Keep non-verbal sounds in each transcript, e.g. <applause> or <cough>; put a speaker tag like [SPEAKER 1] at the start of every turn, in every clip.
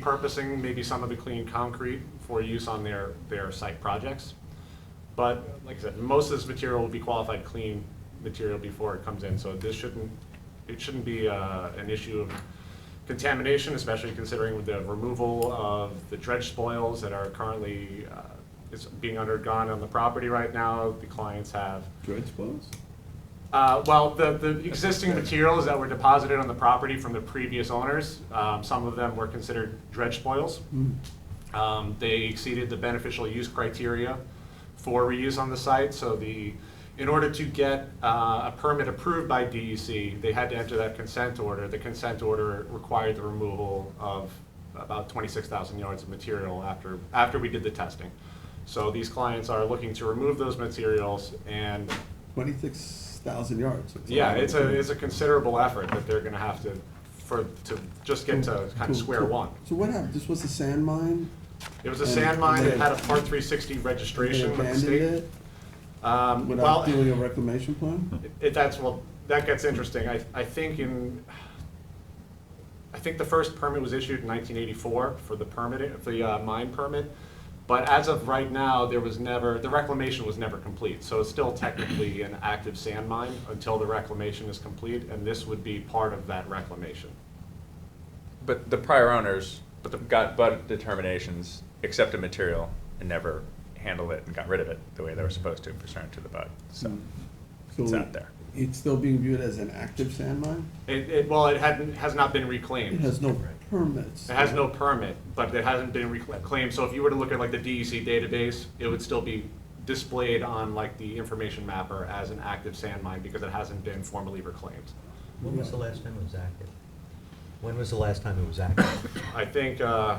[SPEAKER 1] repurposing maybe some of the clean concrete for use on their, their site projects. But like I said, most of this material will be qualified clean material before it comes in, so this shouldn't, it shouldn't be uh, an issue of contamination, especially considering with the removal of the dredge spoils that are currently, uh, is being undergone on the property right now. The clients have
[SPEAKER 2] Dredge spoils?
[SPEAKER 1] uh, Well, the, the existing materials that were deposited on the property from the previous owners, um, some of them were considered dredge spoils.
[SPEAKER 2] Hmm.
[SPEAKER 1] Um, They exceeded the beneficial use criteria for reuse on the site, so the, in order to get uh, a permit approved by DEC, they had to enter that consent order. The consent order required the removal of about 26,000 yards of material after, after we did the testing. So these clients are looking to remove those materials and
[SPEAKER 2] Twenty-six thousand yards. That's
[SPEAKER 1] yeah,
[SPEAKER 2] lot.
[SPEAKER 1] it's a, it's a considerable effort that they're gonna have to, for, to just get to kind
[SPEAKER 2] Cool,
[SPEAKER 1] of square
[SPEAKER 2] cool.
[SPEAKER 1] one.
[SPEAKER 2] So what happened, this was a sand mine?
[SPEAKER 1] It was a
[SPEAKER 2] And
[SPEAKER 1] sand mine, it
[SPEAKER 2] they-
[SPEAKER 1] had a part three sixty
[SPEAKER 2] They
[SPEAKER 1] registration with the
[SPEAKER 2] abandoned
[SPEAKER 1] state.
[SPEAKER 2] it
[SPEAKER 1] Um, well,
[SPEAKER 2] without doing a reclamation plan?
[SPEAKER 1] it, that's, well, that gets interesting, I, I think in, I think the first permit was issued in nineteen eighty-four for the permit, for the uh, mine permit. But as of right now, there was never, the reclamation was never complete, so it's still technically an active sand mine until the reclamation is complete, and this would be part of that reclamation.
[SPEAKER 3] But the prior owners got bud determinations, accepted material, and never handled it and got rid of it the way they were
[SPEAKER 2] Mm-hmm.
[SPEAKER 3] supposed to, pursuant to the bud, so.
[SPEAKER 2] So
[SPEAKER 3] It's out there.
[SPEAKER 2] It's still being viewed as an active sand mine?
[SPEAKER 1] It, it, well, it hadn't, has not been
[SPEAKER 2] It
[SPEAKER 1] reclaimed.
[SPEAKER 2] has no permits.
[SPEAKER 1] It has no permit, but it hasn't been reclaimed, so if you were to look at like the DEC database, it would still be displayed on like the information mapper as an active sand mine because it hasn't been formally reclaimed.
[SPEAKER 4] When was the last time it was active? When was the last time it
[SPEAKER 3] <coughs>
[SPEAKER 4] was active?
[SPEAKER 1] I think, uh,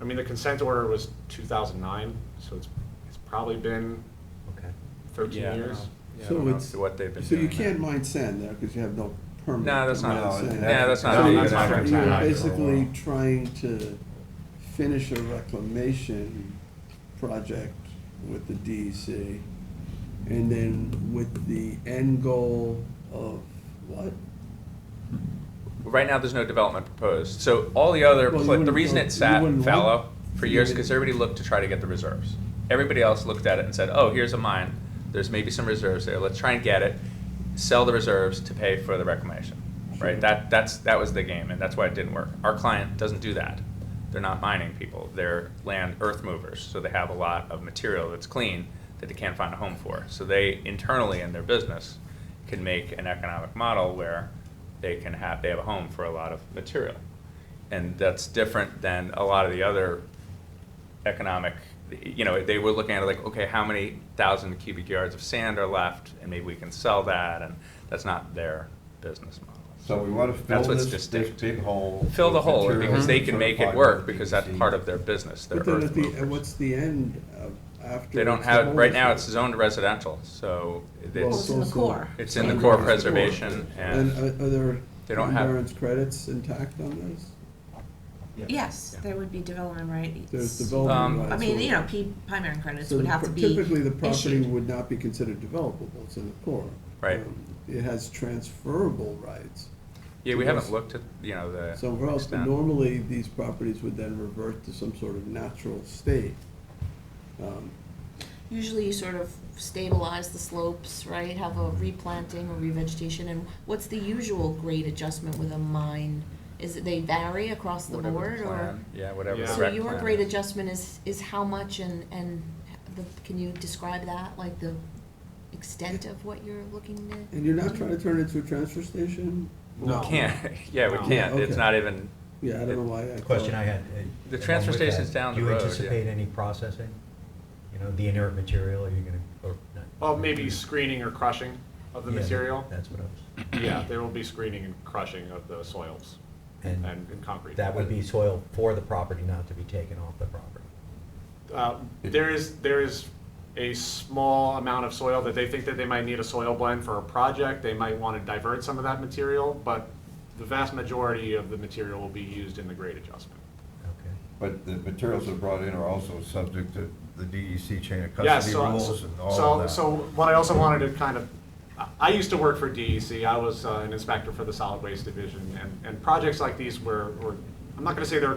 [SPEAKER 1] I mean, the consent order was two thousand nine, so it's, it's probably been
[SPEAKER 4] Okay.
[SPEAKER 1] thirteen
[SPEAKER 3] Yeah.
[SPEAKER 1] years.
[SPEAKER 3] Yeah, I
[SPEAKER 2] So
[SPEAKER 3] don't know
[SPEAKER 2] it's-
[SPEAKER 3] what they've been
[SPEAKER 2] So you
[SPEAKER 3] doing. there.
[SPEAKER 2] can't mine sand there because you have no permit.
[SPEAKER 3] No, that's
[SPEAKER 2] to
[SPEAKER 3] not,
[SPEAKER 2] mine
[SPEAKER 3] no,
[SPEAKER 2] sand.
[SPEAKER 3] that's not.
[SPEAKER 1] No,
[SPEAKER 3] a
[SPEAKER 1] that's
[SPEAKER 3] good
[SPEAKER 1] not
[SPEAKER 3] idea.
[SPEAKER 1] fair.
[SPEAKER 2] You're
[SPEAKER 1] Yeah.
[SPEAKER 2] basically trying to finish a reclamation project with the DEC, and then with the end goal of what?
[SPEAKER 3] Right now, there's no development proposed, so all the
[SPEAKER 2] Well,
[SPEAKER 3] other,
[SPEAKER 2] you
[SPEAKER 3] pla- the
[SPEAKER 2] wouldn't
[SPEAKER 3] reason
[SPEAKER 2] want-
[SPEAKER 3] it
[SPEAKER 2] you
[SPEAKER 3] sat
[SPEAKER 2] wouldn't
[SPEAKER 3] fallow
[SPEAKER 2] want-
[SPEAKER 3] for
[SPEAKER 2] you
[SPEAKER 3] years,
[SPEAKER 2] would-
[SPEAKER 3] because everybody looked to try to get the reserves. Everybody else looked at it and said, oh, here's a mine, there's maybe some reserves there, let's try and get it, sell the reserves to pay for the reclamation,
[SPEAKER 2] Sure.
[SPEAKER 3] right? That, that's, that was the game, and that's why it didn't work. Our client doesn't do that. They're not mining people, they're land earth movers, so they have a lot of material that's clean that they can't find a home for. So they internally in their business can make an economic model where they can have, they have a home for a lot of material. And that's different than a lot of the other economic, you know, they were looking at it like, okay, how many thousand cubic yards of sand are left? And maybe we can sell that, and that's not their business model.
[SPEAKER 5] So we want to fill
[SPEAKER 3] That's what's
[SPEAKER 5] this, this
[SPEAKER 3] distinct.
[SPEAKER 5] big hole.
[SPEAKER 3] Fill the
[SPEAKER 5] with
[SPEAKER 3] hole,
[SPEAKER 5] material
[SPEAKER 3] because they can make it
[SPEAKER 5] certified
[SPEAKER 3] work,
[SPEAKER 5] by
[SPEAKER 3] because that's
[SPEAKER 5] DEC.
[SPEAKER 3] part of their business, their
[SPEAKER 2] But then
[SPEAKER 3] earth
[SPEAKER 2] at the, and
[SPEAKER 3] movers.
[SPEAKER 2] what's the end of, after?
[SPEAKER 3] They don't
[SPEAKER 2] it's the
[SPEAKER 3] have,
[SPEAKER 2] whole
[SPEAKER 3] right now, it's
[SPEAKER 2] thing?
[SPEAKER 3] zoned residential, so
[SPEAKER 2] Well,
[SPEAKER 3] it's,
[SPEAKER 6] It's in the
[SPEAKER 2] so-
[SPEAKER 6] core.
[SPEAKER 3] it's in the core preservation,
[SPEAKER 2] And
[SPEAKER 3] and
[SPEAKER 2] are are there
[SPEAKER 3] They don't have-
[SPEAKER 2] endurance credits intact on this?
[SPEAKER 6] Yes, there would be development rights.
[SPEAKER 2] There's
[SPEAKER 3] Um,
[SPEAKER 2] development rights.
[SPEAKER 6] I mean,
[SPEAKER 2] or-
[SPEAKER 6] you know, P, primary credits
[SPEAKER 2] So
[SPEAKER 6] would
[SPEAKER 2] the
[SPEAKER 6] have
[SPEAKER 2] pro-
[SPEAKER 6] to be
[SPEAKER 2] Typically, the property
[SPEAKER 6] issued.
[SPEAKER 2] would not be considered developable, it's in the core.
[SPEAKER 3] Right.
[SPEAKER 2] Um, It has transferable rights
[SPEAKER 3] yeah, we haven't looked at, you know, the.
[SPEAKER 2] somewhere else, but
[SPEAKER 3] extent.
[SPEAKER 2] normally, these properties would then revert to some sort of natural state. Um,
[SPEAKER 6] Usually you sort of stabilize the slopes, right, have a replanting or revegetation, and what's the usual grade adjustment with a mine? Is it they vary across the
[SPEAKER 3] Whatever
[SPEAKER 6] board, or?
[SPEAKER 3] plan- Yeah, whatever
[SPEAKER 1] Yeah.
[SPEAKER 3] the
[SPEAKER 6] So
[SPEAKER 3] rec
[SPEAKER 6] your
[SPEAKER 3] plan
[SPEAKER 6] grade
[SPEAKER 3] is.
[SPEAKER 6] adjustment is, is how much and, and the, can you describe that, like the extent of what you're looking to?
[SPEAKER 2] And you're not trying to turn it into a transfer station?
[SPEAKER 3] We can't, <laughs> yeah, we
[SPEAKER 1] No.
[SPEAKER 3] can't, it's
[SPEAKER 2] Oh, Okay.
[SPEAKER 3] not even,
[SPEAKER 2] Yeah, I don't know why I.
[SPEAKER 4] The question
[SPEAKER 2] thought-
[SPEAKER 4] I had. uh,
[SPEAKER 3] The
[SPEAKER 4] along
[SPEAKER 3] transfer
[SPEAKER 4] with that,
[SPEAKER 3] station's down the road,
[SPEAKER 4] Do
[SPEAKER 3] yeah.
[SPEAKER 4] you anticipate any processing? You know, the inert material, are you gonna, or not?
[SPEAKER 1] Well, Oh, maybe screening or crushing of the
[SPEAKER 4] Yeah,
[SPEAKER 1] material.
[SPEAKER 4] That's what I was,
[SPEAKER 1] Yeah, there will be screening and crushing of the soils and,
[SPEAKER 4] And
[SPEAKER 1] and concrete.
[SPEAKER 4] that would be soil for the property, not to be taken off the property.
[SPEAKER 1] Uh, There is, there is a small amount of soil that they think that they might need a soil blend for a project. They might want to divert some of that material, but the vast majority of the material will be used in the grade adjustment.
[SPEAKER 4] Okay.
[SPEAKER 5] But the materials that are brought in are also subject to the DEC chain of
[SPEAKER 1] Yeah,
[SPEAKER 5] custody
[SPEAKER 1] so-
[SPEAKER 5] rules and all
[SPEAKER 1] so-
[SPEAKER 5] of that.
[SPEAKER 1] So what I also wanted to kind of, I- I used to work for DEC, I was uh, an inspector for the solid waste division, and, and projects like these were, were I'm not gonna say they're